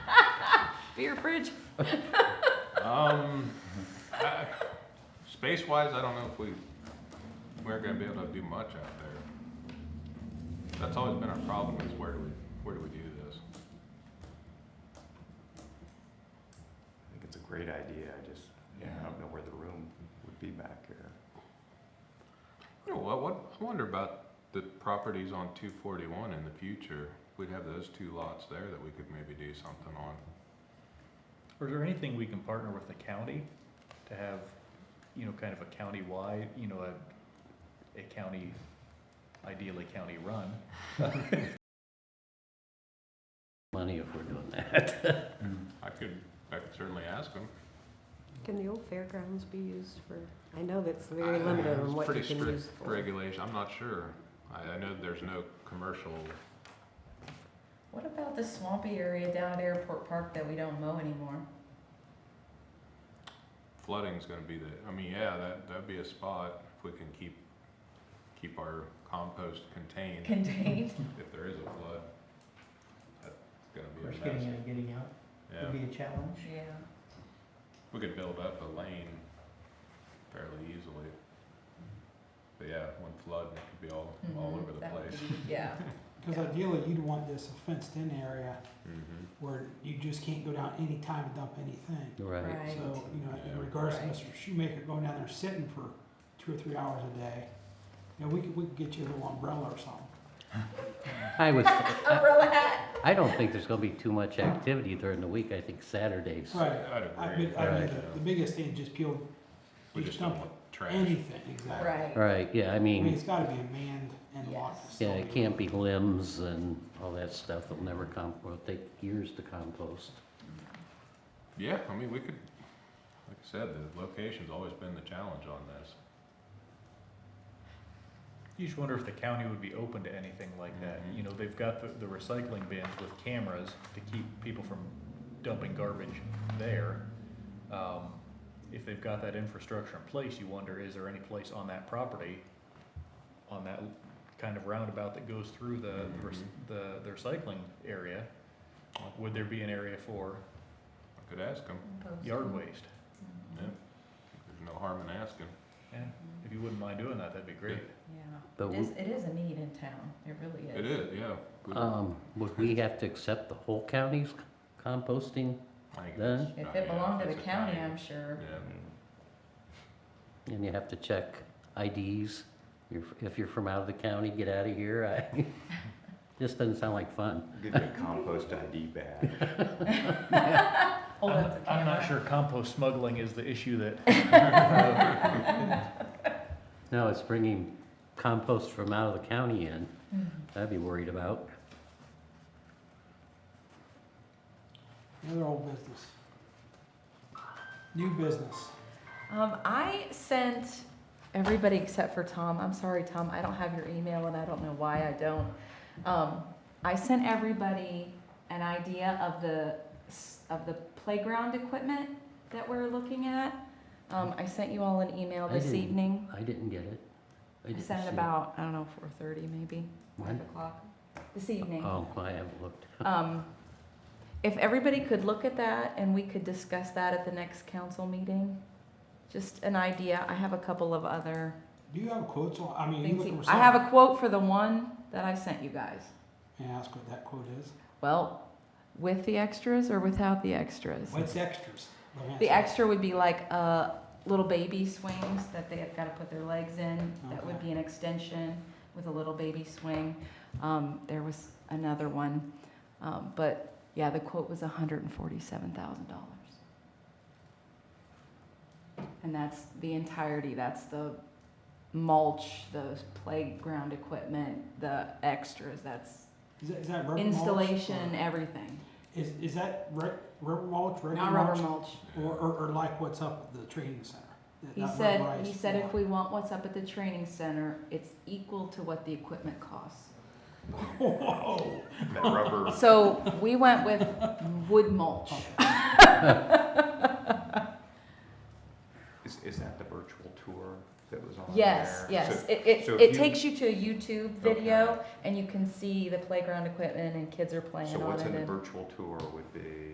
Beer fridge? Um, I- space-wise, I don't know if we, we're gonna be able to do much out there. That's always been our problem is where do we, where do we do this? I think it's a great idea, I just, yeah, I don't know where the room would be back here. You know what, what, I wonder about the properties on two forty-one in the future. If We'd have those two lots there that we could maybe do something on. Or is there anything we can partner with the county to have, you know, kind of a county-wide, you know, a, a county, ideally county-run? money if we're doing that. I could, I could certainly ask them. Can the old fairgrounds be used for, I know that's very limited on what you can use Pretty strict for. regulation, I'm not sure. I, I know there's no commercial, What about the swampy area down at Airport Park that we don't mow anymore? flooding's gonna be the, I mean, yeah, that, that'd be a spot if we can keep, keep our compost contained. Contained? if there is a flood, that's gonna be a mess. First getting in and getting out would Yeah, be a challenge. Yeah. we could build up a lane fairly easily. But yeah, one flood, and it could be all, all Mhm, over the that would place. be- Yeah. Because ideally, you'd want this fenced-in area Mhm. where you just can't go down any time and dump anything. Right. Right. So, you know, Yeah. in regards to Right. Mr. Shoemaker going down there sitting for two or three hours a day, you know, we could, we could get you a little umbrella or something. I was, Oh, Umbrella hat. I don't think there's gonna be too much activity during the week, I think Saturdays. Right. I'd I agree. mean, I mean, Right. the- the biggest thing is just peel, We you just don't dump want trash. anything, exactly. Right. Right, yeah, I I mean, it's mean, gotta be a manned and locked Yes. yeah, facility. it can't be limbs and all that stuff, it'll never comp, will take years to compost. Yeah, I mean, we could, like I said, the location's always been the challenge on this. You just wonder if the county would be open to anything like that. You know, they've got the, the recycling bins with cameras to keep people from dumping garbage there. Um, If they've got that infrastructure in place, you wonder, is there any place on that property, on that kind of roundabout that goes through the, the rec- the, the recycling area? Would there be an area for I could ask them, yard waste? Mm-hmm. yeah. There's no harm in asking. Yeah, if you wouldn't mind doing that, that'd be great. Yeah. But It we- is, it is a need in town. It really is. It is, yeah. We- Um, would we have to accept the whole county's composting? I think then- If it's it not- yeah, belonged to the it's a county, county, I'm sure. Yeah. Um, And you have to check IDs, you're, if you're from out of the county, get out of here, I, this doesn't sound like fun. Give you a compost ID badge. Hold up the I'm not camera. sure compost smuggling is the issue that No, it's bringing compost from out of the county in, Mm-hmm. I'd be worried about. Another old business. New business. Um, I sent everybody except for Tom. I'm sorry, Tom. I don't have your email, and I don't know why I don't. Um, I sent everybody an idea of the s- of the playground equipment that we're looking at. Um, I sent you all an email I this didn't- evening. I didn't get it. I didn't sent see it it. about I don't know 4:30 maybe When? 5 o'clock this evening. Oh, I haven't looked. Um, if everybody could look at that and we could discuss that at the next council meeting, just an idea. I have a couple of other Do you have quotes on, I mean, you things. look he- for I have something, a quote for the one that I sent you guys. may I ask what that quote is? Well, with the extras or without the extras? What's extras? Let me ask The you. extra would be like, uh, little baby swings that they have gotta put their legs in. That would Okay. be an extension with a little baby swing. Um, there was another one, um, but yeah, the quote was hundred and forty-seven thousand dollars. And that's the entirety, that's the mulch, the playground equipment, the extras, that's Is that, is that rubber mulch? installation, or- everything. Is, is that re- rubber mulch, regular Not rubber mulch? mulch. Or, or, or like what's up at the training center? That- He that said, he rubberized said if block. we want what's up at the training center, it's equal to what the equipment costs. Whoa, That rubber, So we went with wood mulch. is, is that the virtual tour that was on there? Yes, yes. So- It, it, so if it you- takes you to a YouTube video and you can see the playground equipment and kids are playing So on what's it in the and. virtual tour would be